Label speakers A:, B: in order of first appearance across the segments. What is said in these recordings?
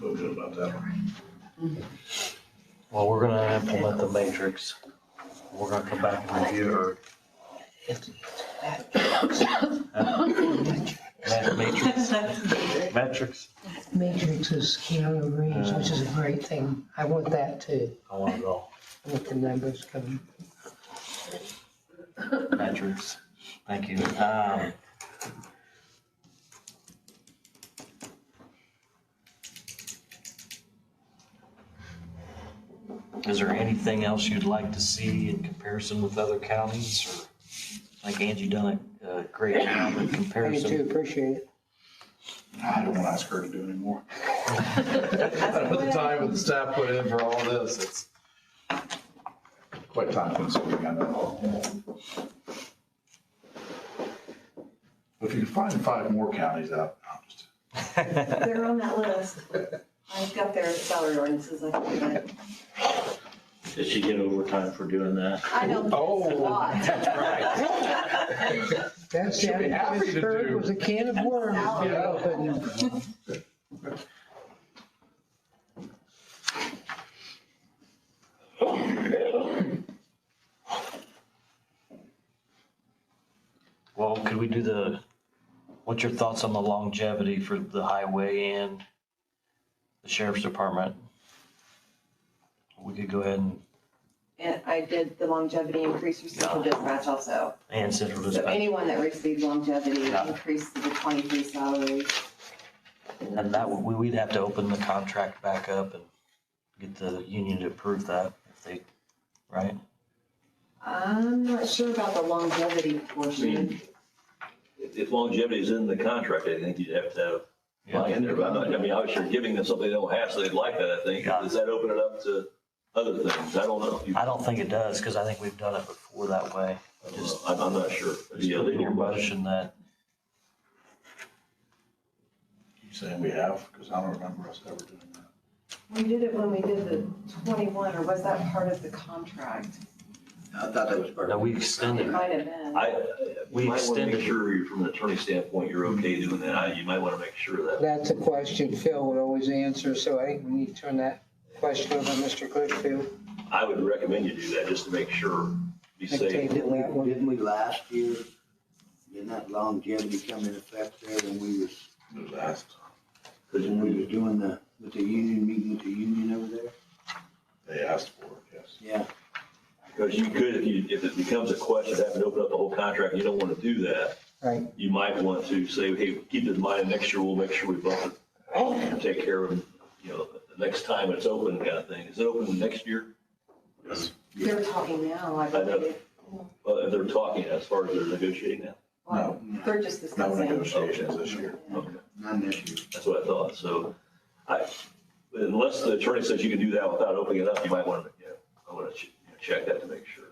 A: that.
B: Well, we're gonna implement the matrix. We're gonna come back and review or ma- matrix, metrics.
C: Matrix is Keanu Reeves, which is a great thing. I want that too,
B: I want it all.
C: with the numbers coming.
B: Metrics. Thank you. Um, Is there anything else you'd like to see in comparison with other counties? or Like Angie done a a great job in
C: I do too,
B: comparison.
C: appreciate it.
A: I don't want to ask her to do anymore. The time and the staff put in for all this, it's quite time consuming, I know. If you can find five more counties out, I'm just,
D: They're on that list. I've got their salary ordinances, I can do that.
E: Did she get overtime for doing that?
D: I know Oh. that's a lot.
C: That's,
A: Should be
C: that
A: happy
C: was
A: to
C: heard
A: do.
C: was a can of worms. you know, but
B: Well, could we do the, what's your thoughts on the longevity for the highway and the sheriff's department? We could go ahead and,
D: And I did the longevity increase for central dispatch also.
B: and central
D: So
B: dispatch.
D: anyone that received longevity
B: Yeah.
D: increased to the twenty-three salary.
B: And that, would- we, we'd have to open the contract back up and get the union to approve that if they, right?
D: I'm not sure about the longevity portion.
E: If if longevity is in the contract, I think you'd have to have
B: Yeah.
E: line in there, but I'm not, I mean, obviously you're giving them something they don't have, so they'd like that, I think.
B: Yeah.
E: Does that open it up to other things? I don't know. You-
B: I don't think it does, cause I think we've done it before that way. Just
E: I'm, I'm not sure. It'd
B: just
E: be a
B: put in your
E: legal question.
B: motion that,
A: you saying we have, because I don't remember us ever doing that.
D: We did it when we did the twenty-one, or was that part of the contract?
F: I thought that was part
B: that
F: of it.
B: we extend
D: It
B: it.
D: might have been.
E: I,
B: We
E: we might want to
B: extended-
E: make sure you're- from an attorney standpoint, you're okay doing that. I- You might want to make sure of that.
C: That's a question Phil would always answer, so I think we need to turn that question over to Mr. Litchfield.
E: I would recommend you do that just to make sure, be
C: I
E: safe.
C: table that
F: Didn't we-
C: one.
F: Didn't we last year, didn't that longevity come in effect there when we was,
A: It was asked,
F: when we was doing the, with the union, meeting with the union over there?
A: they asked for it, yes.
F: Yeah,
E: Because you could, if you, if it becomes a question, having to open up the whole contract, you don't want to do that.
C: Right.
E: You might want to say, hey, keep this in mind, next year we'll make sure we bump it, and take care of, it, you know, the next time it's open kind of thing. Is it open next year?
D: They're talking now, I
E: know.
D: believe.
E: Well, if they're talking as far as they're negotiating now.
D: Well, They're just
A: No
D: discussing.
A: negotiations this year.
E: Okay.
F: not this year.
E: That's what I thought. So I, unless the attorney says you can do that without opening it up, you might want to, you know, I want to check that to make sure.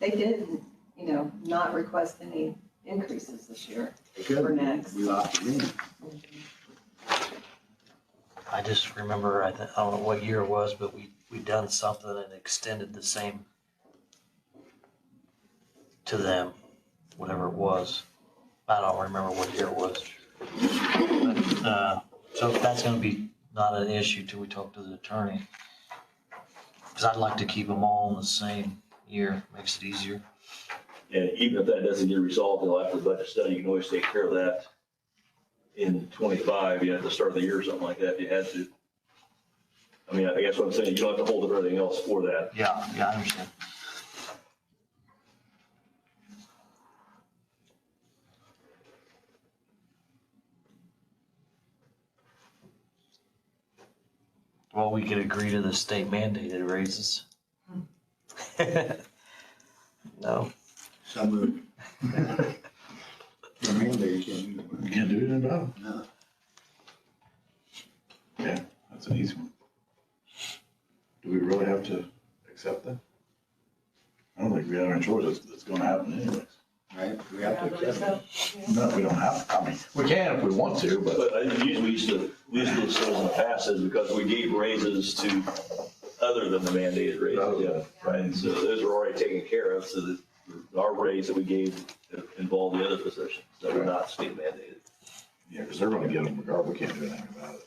D: They did, you know, not request any increases this year.
F: Because
D: For next.
F: We lost it in.
B: I just remember, I, th- I don't know what year it was, but we, we done something and extended the same to them, whatever it was. I don't remember what year it was. But, uh, So if that's gonna be not an issue till we talk to the attorney. Cause I'd like to keep them all in the same year, makes it easier.
E: And even if that doesn't get resolved until after the budget study, you can always take care of that in twenty-five, you know, at the start of the year or something like that, if you had to. I mean, I guess what I'm saying, you don't have to hold up everything else for that.
B: Yeah, yeah, I understand. Well, we could agree to the state mandated raises. No,
F: So moved. The mandate came in.
A: You can't do anything about it.
F: No.
A: Yeah, that's an easy one. Do we really have to accept that? I don't think we have any choice, it's, it's gonna happen anyways.
F: Right, we have to accept it.
A: No, we don't have, I mean, we can if we want to, but.
E: But I usually we used to, we used to do this in the past is because we gave raises to other than the mandated raises, yeah.
A: Right,
E: So those are already taken care of, so that our raise that we gave involved the other positions that were not state mandated.
A: yeah, because they're gonna get them regardless, we can't do anything about it.